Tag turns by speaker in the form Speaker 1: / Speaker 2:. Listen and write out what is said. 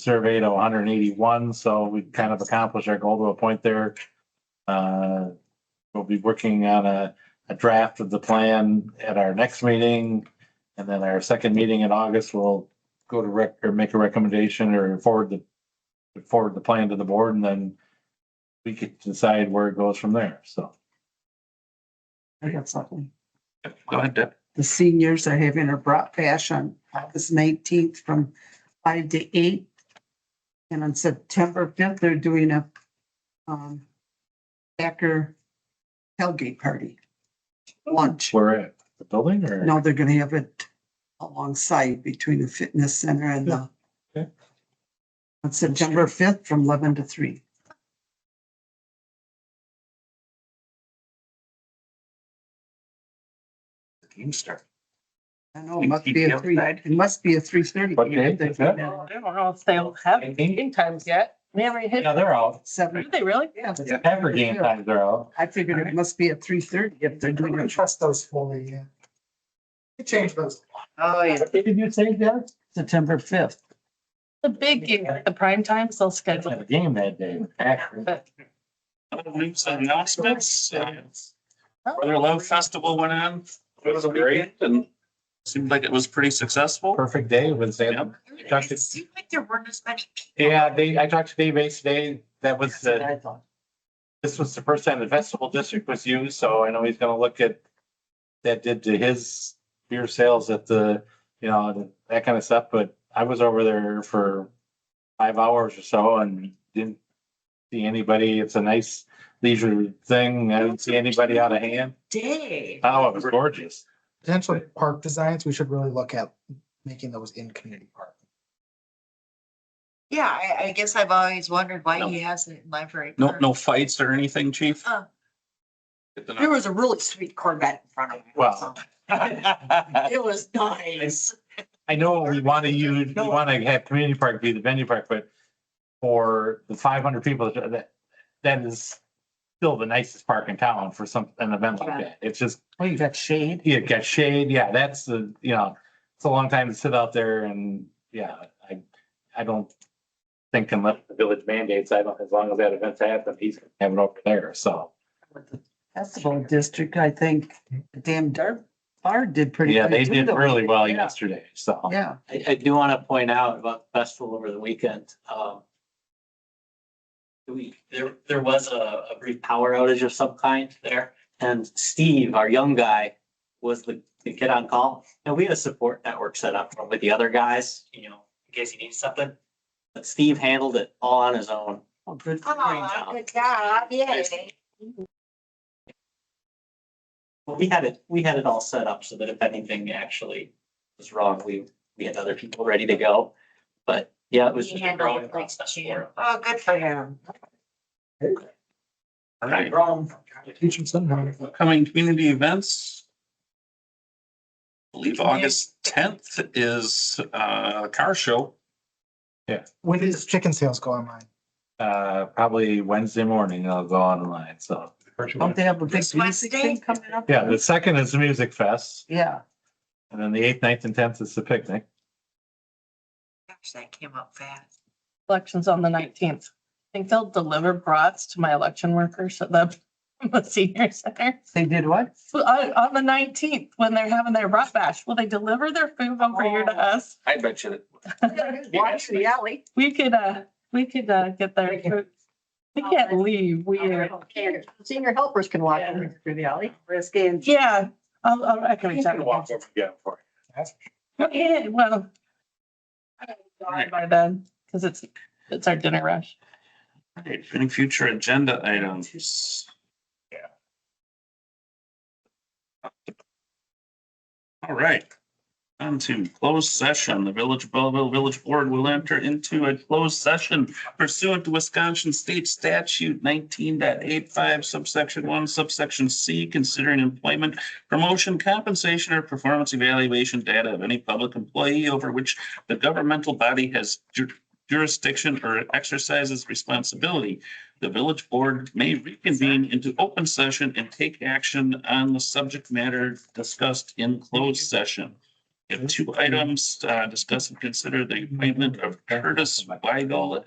Speaker 1: survey to one hundred and eighty-one, so we kind of accomplished our goal to a point there. Uh, we'll be working on a, a draft of the plan at our next meeting. And then our second meeting in August, we'll go to rec, or make a recommendation or forward the, forward the plan to the board and then we could decide where it goes from there, so.
Speaker 2: I got something.
Speaker 3: Go ahead, Deb.
Speaker 2: The seniors are having a brat bash on August nineteenth from five to eight. And on September fifth, they're doing a um Packer tailgate party. Lunch.
Speaker 1: Where at? The building or?
Speaker 2: No, they're gonna have it alongside between the fitness center and the
Speaker 1: Okay.
Speaker 2: on September fifth from eleven to three.
Speaker 3: Keemstar.
Speaker 2: I know, it must be
Speaker 3: Keep
Speaker 2: a
Speaker 3: it
Speaker 2: three,
Speaker 3: outside.
Speaker 2: it must be a three thirty.
Speaker 1: What day is that?
Speaker 4: I don't know if they'll have game times yet. They haven't hit,
Speaker 1: Yeah, they're out.
Speaker 2: Seven,
Speaker 4: do they really?
Speaker 2: yeah, that's-
Speaker 3: Yeah.
Speaker 1: Every game times are out.
Speaker 2: I figured it must be at three thirty if they're doing it.
Speaker 5: trust those fully, yeah. We change those.
Speaker 4: Oh, yeah.
Speaker 1: What day Did you say that?
Speaker 2: September fifth.
Speaker 4: The big game, the prime times, they'll schedule.
Speaker 1: Had a
Speaker 4: it.
Speaker 1: game that day. Akron.
Speaker 4: But
Speaker 3: News and announcements. uh,
Speaker 4: Oh.
Speaker 3: Brother Love Festival went on. It was a weekend and seemed like it was pretty successful.
Speaker 1: Perfect day with Salem. Talked to-
Speaker 6: It seemed like there weren't as many people.
Speaker 1: Yeah, they, I talked to Dave Ace today. That was, uh, this was the first time the festival district was used, so I know he's gonna look at that did to his beer sales at the, you know, that kind of stuff, but I was over there for five hours or so and didn't see anybody. It's a nice leisure thing. I didn't see anybody out of hand.
Speaker 6: Day.
Speaker 3: Uh,
Speaker 1: Oh, it was gorgeous.
Speaker 5: Potentially park designs, we should really look at making those in community park.
Speaker 6: Yeah, I, I guess I've always wondered why
Speaker 3: No.
Speaker 6: he has it in library.
Speaker 3: No, no fights or anything, chief?
Speaker 6: Uh.
Speaker 3: Good to
Speaker 6: There
Speaker 3: know.
Speaker 6: was a really sweet Corvette in front of me.
Speaker 1: Wow.
Speaker 6: It was nice.
Speaker 1: I know we want to use, we want to have community park be the venue park, but for the five hundred people, that, that is still the nicest park in town for some, an event like that. It's just,
Speaker 2: Well, you got shade.
Speaker 1: you got shade, yeah, that's the, you know, it's a long time to sit out there and, yeah, I, I don't think unless the village mandates, I don't, as long as that event's happening, he's gonna have it over there, so.
Speaker 2: with the Festival district, I think the damn dark bar did pretty.
Speaker 1: Yeah,
Speaker 2: good
Speaker 1: they
Speaker 2: too,
Speaker 1: did
Speaker 2: though.
Speaker 1: really well
Speaker 2: Yeah.
Speaker 1: yesterday, so.
Speaker 2: Yeah,
Speaker 7: I, I do want to point out about the festival over the weekend. um, We, there, there was a, a brief power outage of some kind there. And Steve, our young guy, was the, the kid on call. And we had a support network set up with the other guys, you know, in case he needs something. But Steve handled it all on his own.
Speaker 2: well, good. for him.
Speaker 6: Oh, good job, yay.
Speaker 7: But we had it, we had it all set up so that if anything actually was wrong, we, we had other people ready to go. But yeah, it was.
Speaker 6: He
Speaker 7: just a
Speaker 6: handled
Speaker 7: growing
Speaker 6: it like
Speaker 7: process for
Speaker 6: champ.
Speaker 7: him.
Speaker 6: Oh, good for him.
Speaker 3: All right.
Speaker 5: Wrong. Teach them somehow.
Speaker 3: Upcoming community events. I Believe August tenth is uh, a car show.
Speaker 5: When does chicken sales go online?
Speaker 1: Uh, probably Wednesday morning, I'll go online, so.
Speaker 2: Don't they have a big
Speaker 6: This
Speaker 2: music
Speaker 6: Wednesday?
Speaker 2: thing coming up?
Speaker 1: Yeah, the second is the music fest,
Speaker 2: Yeah,
Speaker 1: and then the eighth, ninth, and tenth is the picnic.
Speaker 6: Gosh, that came up fast.
Speaker 4: Elections on the nineteenth. I think they'll deliver brats to my election workers at the the senior center.
Speaker 2: they did what?
Speaker 4: So On, on the nineteenth, when they're having their brat bash, will they deliver their food over here to us?
Speaker 3: Oh. I bet you.
Speaker 6: Watch the alley.
Speaker 4: We could, uh, we could, uh, get their food. We
Speaker 3: Oh,
Speaker 4: can't leave. We are,
Speaker 6: Senior helpers can walk through the alley. Risky and.
Speaker 4: yeah, I'll, I'll, I can reach out.
Speaker 1: Walk over, yeah, for it.
Speaker 4: Yeah, well. I don't know By then, because it's, it's our dinner rush.
Speaker 3: Alright, Any future agenda items? Yeah. All right. On to closed session. The Village of Belleville Village Board will enter into a closed session pursuant to Wisconsin State Statute 19.85 subsection one subsection C, considering employment, promotion, compensation, or performance evaluation data of any public employee over which the governmental body has ju- jurisdiction or exercises responsibility, the village board may reconvene into open session and take action on the subject matter discussed in closed session. We have two items, uh, discuss and consider the appointment of Curtis Weigel